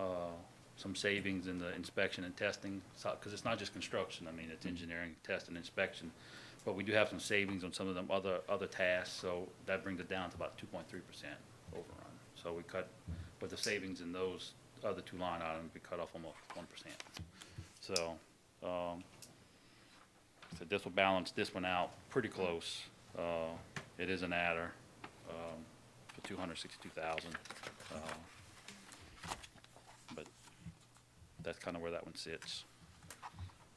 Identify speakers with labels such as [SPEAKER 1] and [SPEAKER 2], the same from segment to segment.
[SPEAKER 1] uh, some savings in the inspection and testing, because it's not just construction, I mean, it's engineering, test and inspection. But we do have some savings on some of them other, other tasks, so that brings it down to about two point three percent overrun. So we cut, but the savings in those other two line items, we cut off almost one percent. So, um, so this will balance this one out pretty close. Uh, It is an adder um, for 262,000. uh, But that's kind of where that one sits.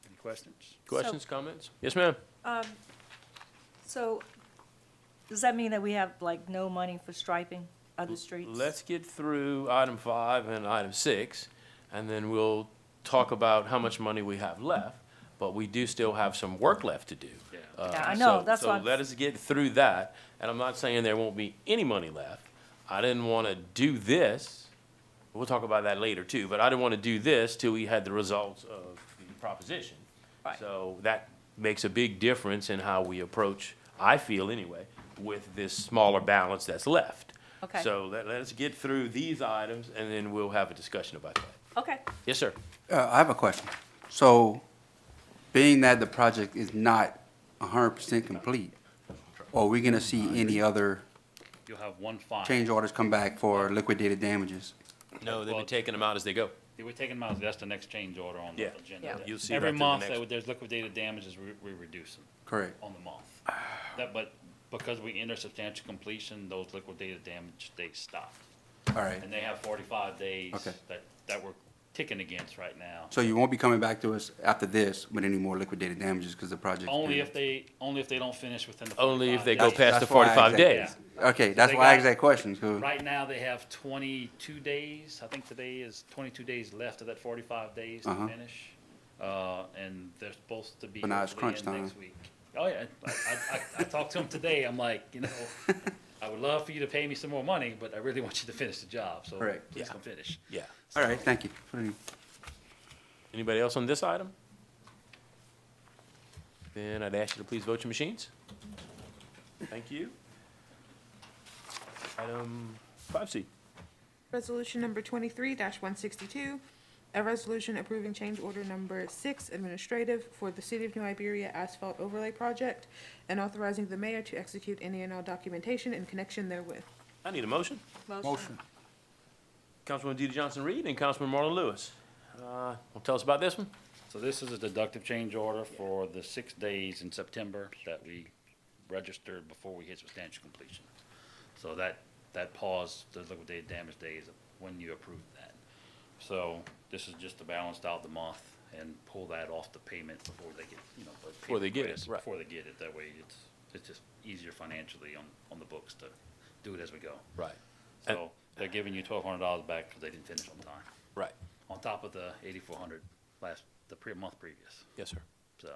[SPEAKER 1] Any questions?
[SPEAKER 2] Questions, comments? Yes, ma'am.
[SPEAKER 3] So, does that mean that we have like no money for striping of the streets?
[SPEAKER 2] Let's get through item five and item six, and then we'll talk about how much money we have left. But we do still have some work left to do.
[SPEAKER 1] Yeah.
[SPEAKER 2] Uh,
[SPEAKER 3] Yeah, I know,
[SPEAKER 2] so-
[SPEAKER 3] that's why-
[SPEAKER 2] So let us get through that, and I'm not saying there won't be any money left. I didn't want to do this, we'll talk about that later too, but I didn't want to do this till we had the results of the proposition.
[SPEAKER 3] Right.
[SPEAKER 2] So that makes a big difference in how we approach, I feel anyway, with this smaller balance that's left.
[SPEAKER 3] Okay.
[SPEAKER 2] So let, let us get through these items and then we'll have a discussion about that.
[SPEAKER 3] Okay,
[SPEAKER 2] Yes, sir.
[SPEAKER 4] Uh, I have a question. So, being that the project is not hundred percent complete, are we gonna see any other
[SPEAKER 1] You'll have one fine.
[SPEAKER 4] change orders come back for liquidated damages?
[SPEAKER 2] No, they've
[SPEAKER 1] Well-
[SPEAKER 2] been taking them out as they go.
[SPEAKER 1] We're taking them out, that's the next change order on the
[SPEAKER 2] Yeah.
[SPEAKER 1] agenda.
[SPEAKER 3] Yeah.
[SPEAKER 2] You'll see that
[SPEAKER 1] Every
[SPEAKER 2] through the
[SPEAKER 1] month,
[SPEAKER 2] next-
[SPEAKER 1] that there's liquidated damages, we- we reduce them.
[SPEAKER 4] Correct.
[SPEAKER 1] on the month. That, but because we enter substantial completion, those liquidated damage, they stop.
[SPEAKER 4] All right.
[SPEAKER 1] And they have forty-five days
[SPEAKER 4] Okay.
[SPEAKER 1] that, that we're ticking against right now.
[SPEAKER 4] So you won't be coming back to us after this with any more liquidated damages because the project.
[SPEAKER 1] Only if they, only if they don't finish within the
[SPEAKER 2] Only if they go
[SPEAKER 1] 45 days.
[SPEAKER 2] past the
[SPEAKER 4] That's why I asked
[SPEAKER 2] forty-five
[SPEAKER 4] that.
[SPEAKER 2] days.
[SPEAKER 4] Okay, that's
[SPEAKER 1] they
[SPEAKER 4] why I asked
[SPEAKER 1] got-
[SPEAKER 4] that question, 'cause-
[SPEAKER 1] Right now, they have twenty-two days, I think today is twenty-two days left of that forty-five days to
[SPEAKER 4] Uh-huh.
[SPEAKER 1] finish. Uh, and they're supposed to be
[SPEAKER 4] But now it's
[SPEAKER 1] hopefully
[SPEAKER 4] crunch
[SPEAKER 1] in next week. Oh, yeah, I, I, I, I talked to them today, I'm like, you know, I would love for you to pay me some more money, but I really want you to finish the job, so
[SPEAKER 4] Correct.
[SPEAKER 1] please
[SPEAKER 2] Yeah.
[SPEAKER 1] come finish.
[SPEAKER 2] Yeah.
[SPEAKER 4] all right, thank you. for the-
[SPEAKER 2] Anybody else on this item? Then I'd ask you to please vote your machines. Thank you. Item five C.
[SPEAKER 5] Resolution number twenty-three one sixty-two, a resolution approving change order number six administrative for the City of New Iberia Asphalt Overlay Project and authorizing the mayor to execute any and all documentation in connection therewith.
[SPEAKER 2] I need a motion.
[SPEAKER 3] motion.
[SPEAKER 2] Councilwoman DeeDee Johnson-Reed and Councilman Marlon Lewis. Uh, Want to tell us about this one?
[SPEAKER 1] So this is a deductive change order for the six days in September that we registered before we hit substantial completion. So that, that pause, the liquidated damage days, when you approved that. So this is just to balance out the month and pull that off the payment before they get, you know. the
[SPEAKER 2] Before they get it,
[SPEAKER 1] payment
[SPEAKER 2] right.
[SPEAKER 1] Before they get it, that way it's, it's just easier financially on, on the books to do it as we go.
[SPEAKER 2] Right, And-
[SPEAKER 1] So they're giving you twelve hundred dollars back because they didn't finish on time,
[SPEAKER 2] right.
[SPEAKER 1] on top of the eighty-four hundred last, the pre, month previous.
[SPEAKER 2] Yes, sir.
[SPEAKER 1] So,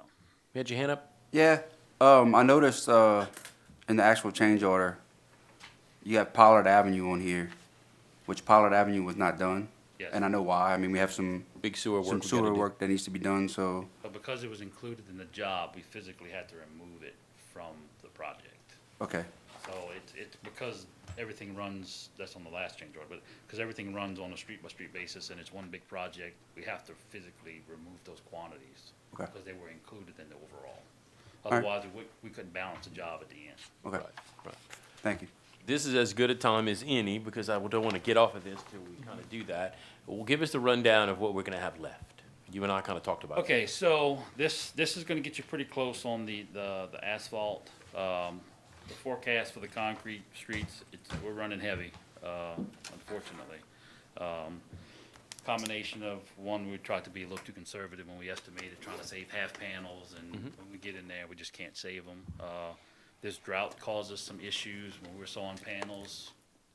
[SPEAKER 2] You had your hand up?
[SPEAKER 4] Yeah, um, I noticed, uh, in the actual change order, you have Pollard Avenue on here, which Pollard Avenue was not done.
[SPEAKER 1] Yes.
[SPEAKER 4] And I know why. I mean, we have some
[SPEAKER 2] Big sewer work.
[SPEAKER 4] some
[SPEAKER 2] we gotta
[SPEAKER 4] sewer
[SPEAKER 2] do.
[SPEAKER 4] work that needs to be done, so,
[SPEAKER 1] but because it was included in the job, we physically had to remove it from the project.
[SPEAKER 4] okay,
[SPEAKER 1] So it's, it's because everything runs, that's on the last change order, but, because everything runs on a street-by-street basis and it's one big project, we have to physically remove those quantities.
[SPEAKER 4] Okay.
[SPEAKER 1] Because they were included in the overall.
[SPEAKER 4] right.
[SPEAKER 1] Otherwise, we, we couldn't balance the job at the end.
[SPEAKER 4] okay,
[SPEAKER 2] Right, right.
[SPEAKER 4] thank you.
[SPEAKER 2] This is as good a time as any because I don't want to get off of this till we kind of do that. Well, give us the rundown of what we're going to have left. You and I kind of talked about it.
[SPEAKER 1] Okay, so this, this is gonna get you pretty close on the, the, the asphalt. Um, the forecast for the concrete streets, it's, we're running heavy, uh, unfortunately. Um, combination of, one, we tried to be a little too conservative when we estimated, trying to save half panels, and when we get in there, we just can't save them. Uh, this drought causes some issues when we were sawing panels.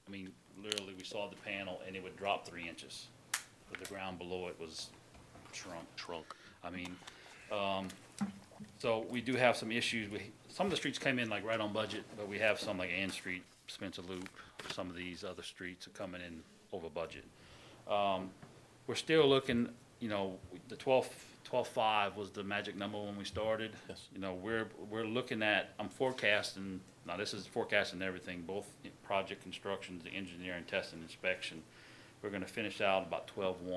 [SPEAKER 1] I mean, literally, we sawed the panel and it would drop three inches, but the ground below it was trunk. Trunk. I mean, um, so we do have some issues. We, some of the streets came in like right on budget, but we have some like Ann Street, Spencer Loop, some of these other streets are coming in over budget. Um, we're still looking, you know, the twelve, twelve-five was the magic number when we started.
[SPEAKER 2] Yes.
[SPEAKER 1] You know, we're, we're looking at, I'm forecasting, now this is forecasting everything, both project constructions, the engineering, test and inspection. We're gonna finish out about twelve-one.